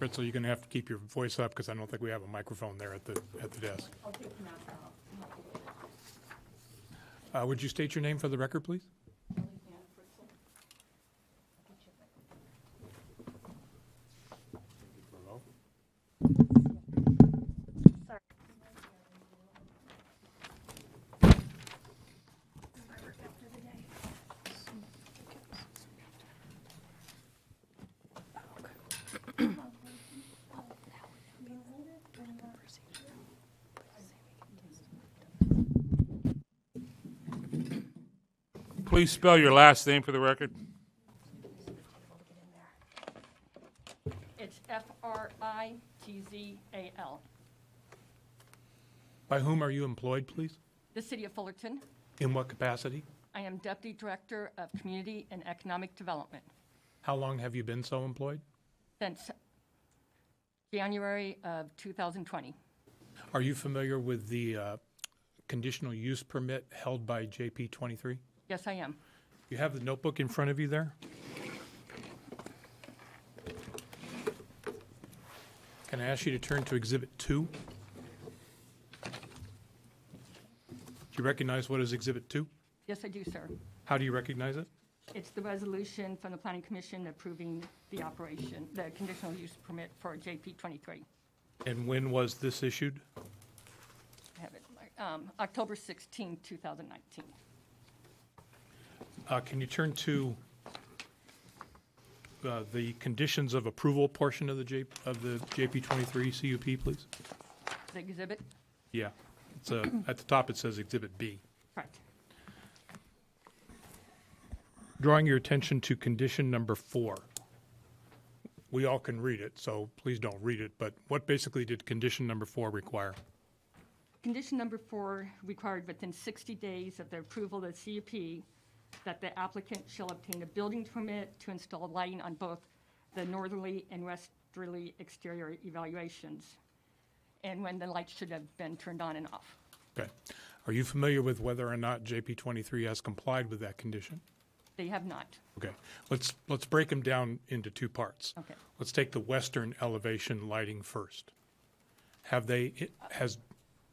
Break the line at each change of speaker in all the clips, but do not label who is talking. Ritzel, you're going to have to keep your voice up because I don't think we have a microphone there at the, at the desk.
I'll take them out now. Not the way that-
Uh, Would you state your name for the record, please?
Only hand for some.
Please spell your last name for the record.
It's F-R-I-T-Z-A-L.
By whom are you employed, please?
The City of Fullerton.
In what capacity?
I am Deputy Director of Community and Economic Development
How long have you been so employed?
since January of 2020.
Are you familiar with the uh, conditional use permit held by JP 23?
Yes, I am.
You have the notebook in front of you there? Can I ask you to turn to Exhibit 2? Do you recognize what is Exhibit 2?
Yes, I do, sir.
How do you recognize it?
It's the resolution from the Planning Commission approving the operation, the conditional use permit for JP 23.
And when was this issued?
I have it, um, October 16, 2019.
Uh, Can you turn to uh, the conditions of approval portion of the J, of the JP 23 CUP, please?
The exhibit?
Yeah, it's uh, at the top it says Exhibit B.
Correct.
drawing your attention to condition number four. We all can read it, so please don't read it, but what basically did condition number four require?
Condition number four required within 60 days of the approval of the CUP that the applicant shall obtain a building permit to install lighting on both the northerly and westerly exterior evaluations, and when the lights should have been turned on and off.
Okay. Are you familiar with whether or not JP twenty-three has complied with that condition?
They have not.
Okay, let's, let's break them down into two parts.
Okay.
Let's take the western elevation lighting first. Have they, it has,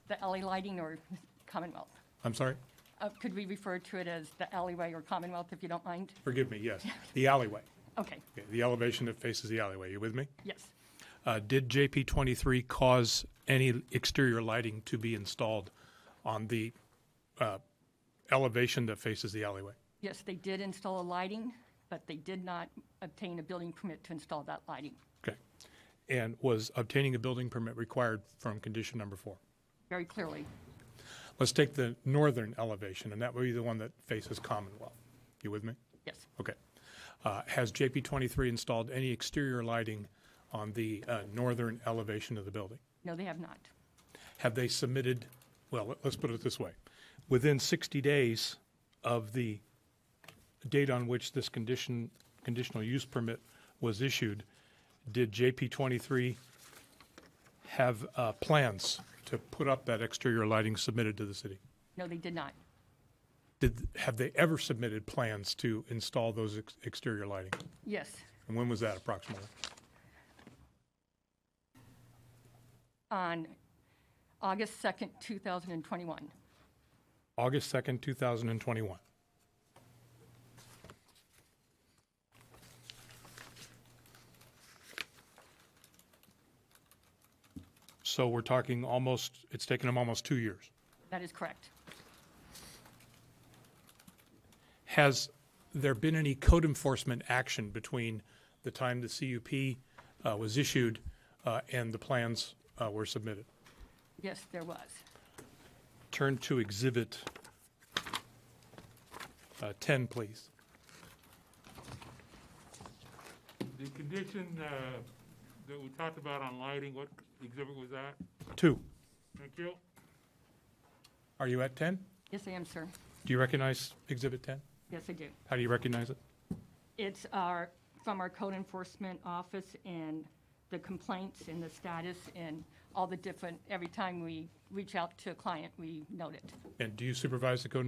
The alley lighting or Commonwealth?
I'm sorry,
Uh, Could we refer to it as the alleyway or Commonwealth, if you don't mind?
forgive me, yes, the alleyway.
Okay,
Okay, The elevation that faces the alleyway, you with me?
yes.
Uh, Did JP 23 cause any exterior lighting to be installed on the uh, elevation that faces the alleyway?
Yes, they did install a lighting, but they did not obtain a building permit to install that lighting.
Okay. And was obtaining a building permit required from condition number four?
Very clearly,
Let's take the northern elevation, and that would be the one that faces Commonwealth. You with me?
yes.
Okay. Uh, Has JP 23 installed any exterior lighting on the uh, northern elevation of the building?
No, they have not.
have they submitted, well, let- let's put it this way, within 60 days of the date on which this condition, conditional use permit was issued, did JP 23 have uh, plans to put up that exterior lighting submitted to the city?
No, they did not.
Did, have they ever submitted plans to install those ex- exterior lighting?
Yes.
And when was that approximately?
On August 2nd, 2021.
August 2nd, 2021. So we're talking almost, it's taken them almost two years.
That is correct.
Has there been any code enforcement action between the time the CUP uh, was issued uh, and the plans uh, were submitted?
Yes, there was.
Turn to Exhibit uh, 10, please.
The condition uh, that we talked about on lighting, what exhibit was that?
Two,
Thank you.
are you at 10?
Yes, I am, sir.
Do you recognize Exhibit 10?
Yes, I do.
How do you recognize it?
It's our, from our code enforcement office and the complaints and the status and all the different, every time we reach out to a client, we note it.
And do you supervise the code